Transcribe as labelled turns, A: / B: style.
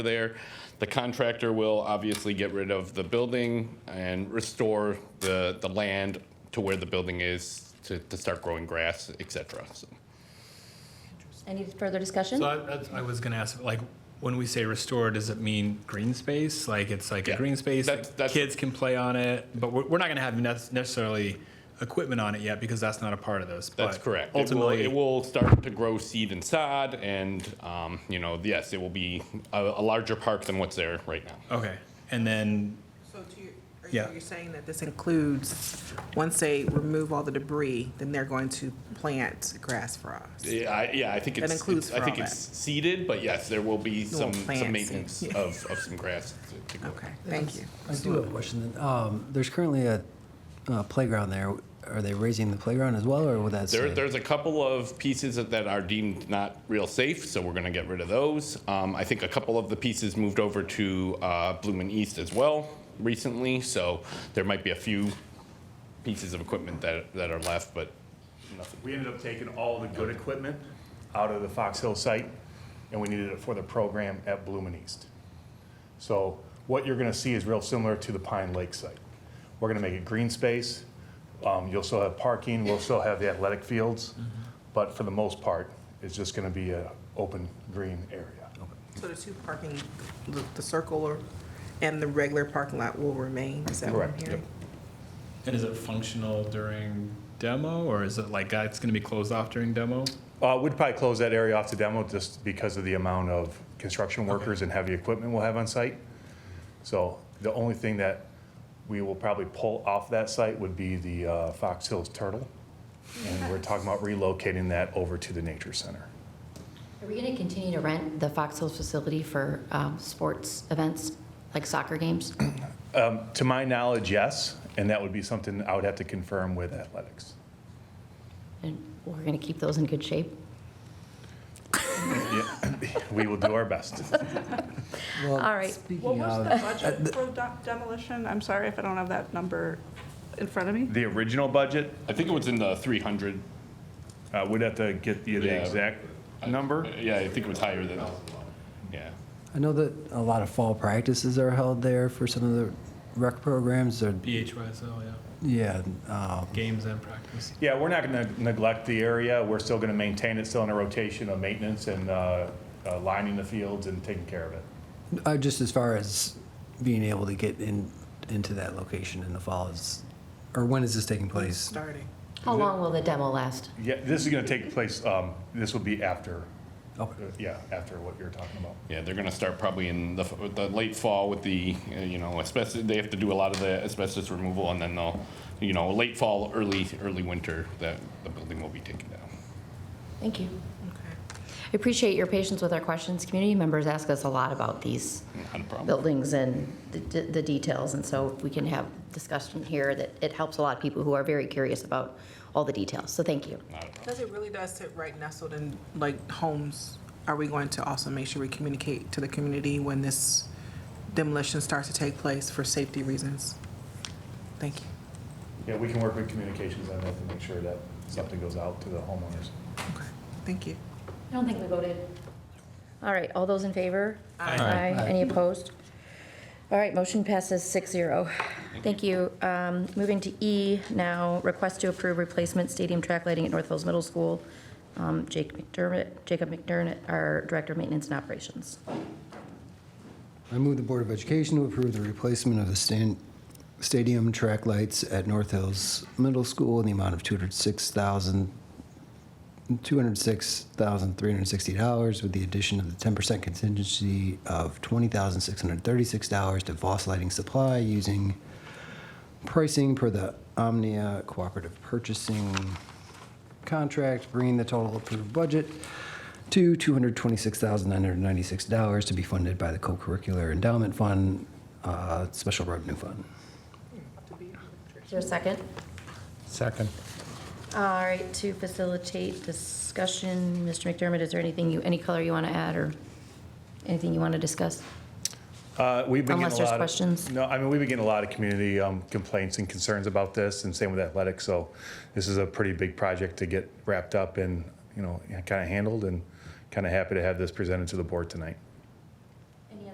A: there. The contractor will obviously get rid of the building and restore the, the land to where the building is to, to start growing grass, et cetera. So,
B: Any further discussion?
C: So I, that's- I was gonna ask, like, when we say restore, does it mean green space? Like, it's like
A: Yeah.
C: a green space,
A: That's-
C: that
A: that's-
C: kids can play on it, but we're, we're not gonna have nec- necessarily equipment on it yet because that's not a part of this.
A: That's
C: but
A: correct. It will,
C: Ultimately,
A: it will start to grow seed and sod and, um, you know, yes, it will be a, a larger park than what's there right now.
C: okay, and then,
D: So to your, are you-
C: Yeah.
D: you're saying that this includes, once they remove all the debris, then they're going to plant grass for us?
A: Yeah, I, yeah, I think it's,
D: includes
A: it's- I
D: for
A: think
D: all
A: it's seeded, but yes, there will be some,
D: Little plants
A: some
D: and-
A: maintenance
D: yeah.
A: of, of some grass to, to grow.
D: Okay, thank you.
E: I do have a question. Um, there's currently a uh, playground there. Are they raising the playground as well, or would that
A: There,
E: stay?
A: there's a couple of pieces that- that are deemed not real safe, so we're going to get rid of those. Um, I think a couple of the pieces moved over to uh, Bloomin' East as well recently, so there might be a few pieces of equipment that, that are left, but nothing.
F: We ended up taking all the good equipment out of the Fox Hill site, and we needed it for the program at Bloomin' East. So what you're gonna see is real similar to the Pine Lake site. We're gonna make it green space, um, you'll still have parking, we'll still have the athletic fields, but for the most part, it's just gonna be a open, green area.
D: So the two parking, the- the circle or- and the regular parking lot will remain, is that what I'm
F: Correct,
D: hearing?
C: and is it functional during demo, or is it like, uh, it's gonna be closed off during demo?
F: Uh, we'd probably close that area off to demo just because of the amount of construction workers and heavy equipment we'll have on site. So the only thing that we will probably pull off that site would be the uh, Fox Hills Turtle. And we're talking about relocating that over to the Nature Center.
G: Are we going to continue to rent the Fox Hills facility for um, sports events, like soccer games?
F: To my knowledge, yes, and that would be something I would have to confirm with athletics.
G: And we're going to keep those in good shape?
F: Yeah, We will do our best.
E: well,
B: All right.
H: What
E: Speaking
H: was
E: of, uh,
H: the budget for de- demolition? I'm sorry if I don't have that number in front of me.
F: The original budget,
A: I think it was in the 300.
F: uh, we'd have to get
A: Yeah.
F: you the exact number.
A: Yeah, I think it was higher than, yeah.
E: I know that a lot of fall practices are held there for some of the rec programs. They're,
C: BHYSL, yeah,
E: yeah, um,
C: games and practice.
F: Yeah, we're not going to neglect the area. We're still going to maintain it, still in a rotation of maintenance and uh, uh, lining the fields and taking care of it.
E: uh, just as far as being able to get in into that location in the fall is, or when is this taking place?
D: Starting.
G: How long will the demo last?
F: Yeah, this is going to take place, um, this will be after, Uh,
E: Oh,
F: yeah, after what you're talking about.
A: Yeah, they're gonna start probably in the, f- the late fall with the, uh, you know, asbestos, they have to do a lot of the asbestos removal, and then they'll, you know, late fall, early, early winter, that the building will be taken down.
G: Thank you.
D: Okay.
G: I appreciate your patience with our questions. Community members ask us a lot about these
A: Not a problem.
G: buildings and the- the details, and so if we can have discussion here, that it helps a lot of people who are very curious about all the details, so thank you.
D: Because it really does sit right nestled in, like, homes, are we going to also make sure we communicate to the community when this demolition starts to take place for safety reasons? Thank you.
F: Yeah, we can work with communications on that to make sure that something goes out to the homeowners.
D: Okay, thank you.
G: I don't think we voted.
B: All right, all those in favor?
D: Aye.
B: Aye. Any opposed? All right, motion passes 6-0. Thank you. Um, Moving to E now, request to approve replacement stadium track lighting at North Hills Middle School. Um, Jake McDermott, Jacob McDermott, our Director of Maintenance and Operations.
E: I move the Board of Education to approve the replacement of the stan- stadium track lights at North Hills Middle School in the amount of $206,000 $206,360 with the addition of the 10% contingency of $20,636 to Voss Lighting Supply using pricing per the Omnia Cooperative Purchasing Contract, bringing the total approved budget to $226,996 to be funded by the Co-Curricular Endowment Fund, uh, Special Revenue Fund.
G: Is there a second?
I: Second.
G: All right, to facilitate discussion, Mr. McDermott, is there anything you, any color you want to add or anything you want to discuss?
F: Uh, We've been
G: Unless
F: getting a
G: there's
F: lot of-
G: questions.
F: No, I mean, we've been getting a lot of community um, complaints and concerns about this, and same with athletics. So this is a pretty big project to get wrapped up and, you know, kind of handled, and kind of happy to have this presented to the board tonight.